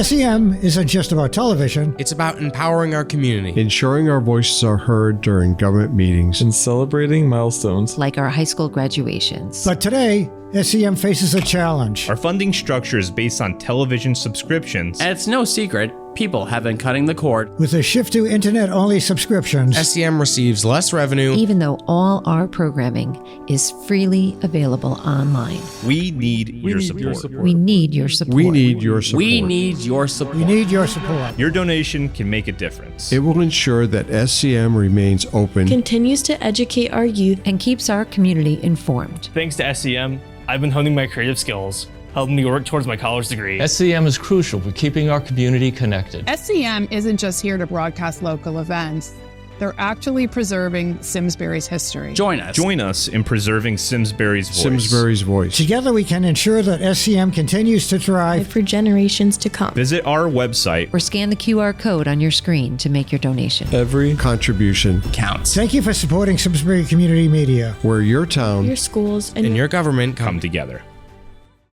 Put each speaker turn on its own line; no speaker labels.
SEM E isn't just about television,
It's about empowering our community.
ensuring our voices are heard during government meetings.
and celebrating milestones.
like our high school graduations.
but today, SEM faces a challenge.
Our funding structure is based on television subscriptions.
And it's no secret, people have been cutting the cord.
With a shift to internet only
E
subscriptions,
SEM E receives less revenue.
Even though all our programming is freely available online,
We need, your, support. your
we need your support.
We need your support.
We need your support.
we need your support.
donation can make a difference.
It will ensure that SCM remains open.
continues to educate our youth
and keeps our community informed.
Thanks to SEM, I've been honing my creative skills, helping me work towards my college degree.
SEM is crucial for keeping our community connected.
SCM E isn't just here to broadcast local events, they're actually preserving Simsbury's history.
Join us.
Join us in preserving Simsbury's voice.
Simsbury's voice.
Together, we can ensure that SEM continues to thrive.
for generations to come.
Visit our website.
Or scan the QR code on your screen to make your donation.
Every
Contribution,
Counts.
Thank you for supporting Simsbury Community Media.
where your town
Your schools and
And your government come
Come
together.
together.